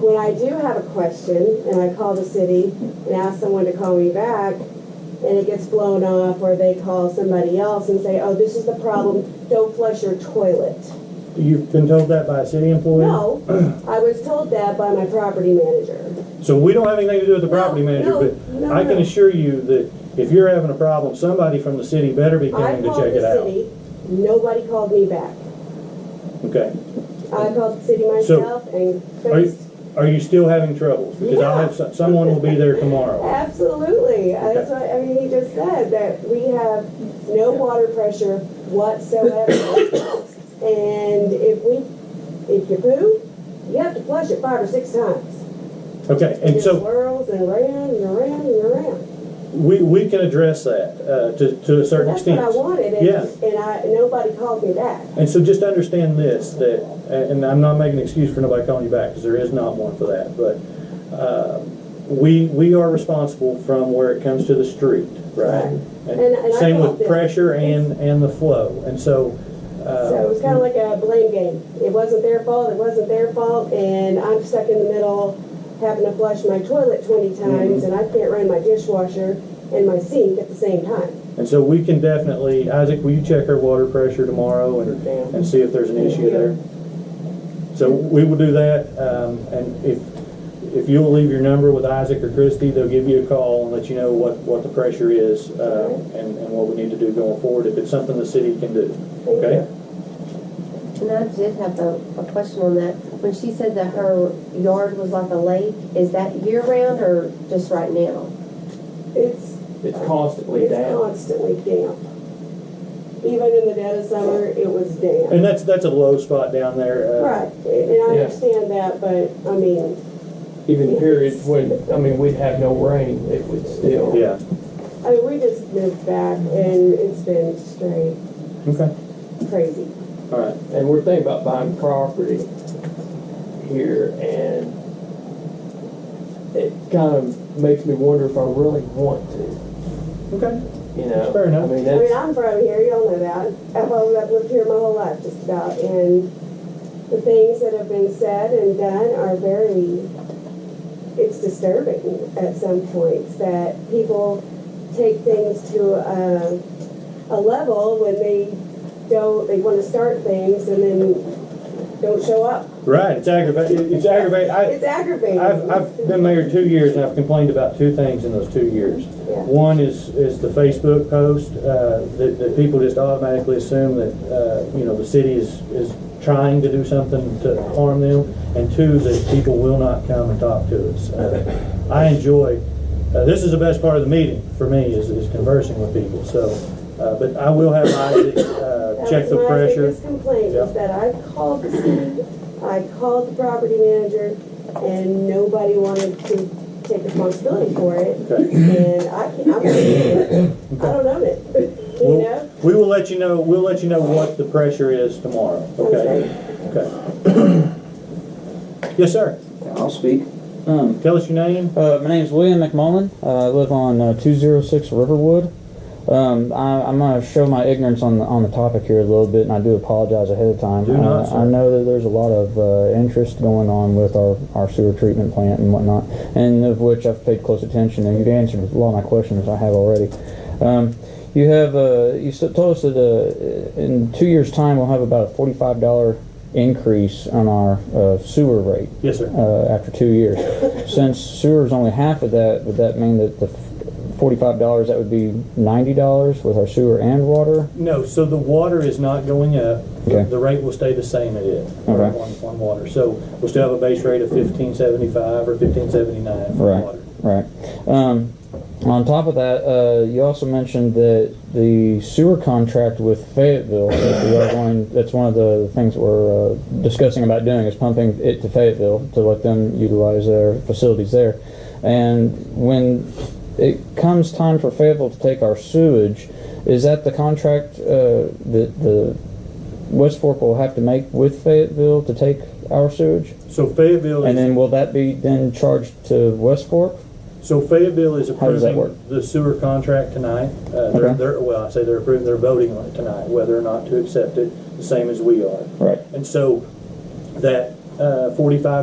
when I do have a question and I call the city and ask someone to call me back and it gets blown off or they call somebody else and say, oh, this is the problem, don't flush your toilet. You've been told that by a city employee? No, I was told that by my property manager. So we don't have anything to do with the property No, manager, no, but no, I can no. assure you that if you're having a problem, somebody from the city better be I coming to called check it the out. city, nobody called me back. Okay. I called the city So- myself and Are you- fixed, Are you still having troubles? Because I'll have, some- someone will be there tomorrow. absolutely. Okay. That's what, I mean, he just said that we have no water pressure whatsoever. And if we, if you poo, you have to flush it five or six times. Okay, It and just so Swirls and around and around and around. we, we can address that, uh, to, to a certain That's what extent. I wanted and, Yeah. and I, nobody called me back. And so just understand this, that, and I'm not making an excuse for nobody calling you back, because there is not one for that, but, uh, we, we are responsible from where it comes to the street, right? And- and I Same thought with that- pressure and, and the flow, and so, So it was kind uh, of like a blame game. It wasn't their fault, it wasn't their fault, and I'm stuck in the middle having to flush my toilet 20 times, Mm-hmm. and I can't run my dishwasher and my sink at the same time. and so we can definitely, Isaac, will you check our water pressure tomorrow and, and see if there's an issue there? So we will do that, um, and if, if you'll leave your number with Isaac or Christie, they'll give you a call and let you know what, what the pressure is, um, and, and what we need to do going forward, if it's something the city can do, okay? And I did have a, a question on that. When she said that her yard was like a lake, is that year round or just right now? It's, It's constantly it's down. constantly damp. Even in the dead of summer, it was damp. And that's, that's a low spot down there. uh, Right, and I Yeah. understand that, but, I mean, Even periods when, I mean, we'd have no rain, it would still. Yeah, I mean, we just moved back, and it's been straight okay, crazy. all right. And we're thinking about buying property here and it kind of makes me wonder if I really want to, Okay. you know? Fair enough. I mean, I mean, that's, I'm from here, y'all know that. I've, always- I've lived here my whole life, just about, and the things that have been said and done are very, it's disturbing at some points, that people take things to a, a level when they don't, they wanna start things and then don't show up. Right, it's aggravating, it's aggravating, I, It's aggravating. I've, I've been mayor two years and I've complained about two things in those two years. Yeah. One is, is the Facebook post, uh, that, that people just automatically assume that, uh, you know, the city is, is trying to do something to harm them. And two, that people will not come and talk to us. Uh, I enjoy, uh, this is the best part of the meeting for me, is, is conversing with people, so. Uh, but I will have Isaac, uh, That check was the my pressure. biggest complaint was that I called the city, I called the property manager, and nobody wanted to take responsibility for it. Okay. And I can't, I'm, I don't own it, you know? We'll, we will let you know, we'll let you know what the pressure is tomorrow, okay? Okay. Yes, sir. I'll speak. Um, Tell us your name. uh, my name's William McMullen. Uh, I live on uh, 206 Riverwood. Um, I, I'm going to show my ignorance on the, on the topic here a little bit, and I do apologize ahead of time. Do not, Uh, sir. I know that there's a lot of uh, interest going on with our, our sewer treatment plant and whatnot, and of which I've paid close attention, and you've answered a lot of my questions I have already. Um, you have uh, you s- told us that uh, in two years' time we'll have about a $45 increase on our uh, sewer rate Yes, sir. uh, after two years. Since sewer's only half of that, would that mean that the forty-five dollars, that would be ninety dollars with our sewer and water? No, so the water is not going up. Okay. The rate will stay the same it is. Okay. One, one water. So we'll still have a base rate of fifteen seventy-five or fifteen seventy-nine for Right, water. right. Um, on top of that, uh, you also mentioned that the sewer contract with Fayetteville, that we are going, that's one of the things we're uh, discussing about doing, is pumping it to Fayetteville to let them utilize their facilities there. And when it comes time for Fayetteville to take our sewage, is that the contract uh, that the West Fork will have to make with Fayetteville to take our sewage? So Fayetteville And is, then will that be then charged to West Fork? so Fayetteville is How does that work? approving the sewer contract tonight. Uh, they're, Okay. they're, well, I say they're approving, they're voting on it tonight, whether or not to accept it, the same as we are. Right. And so that, uh, forty-five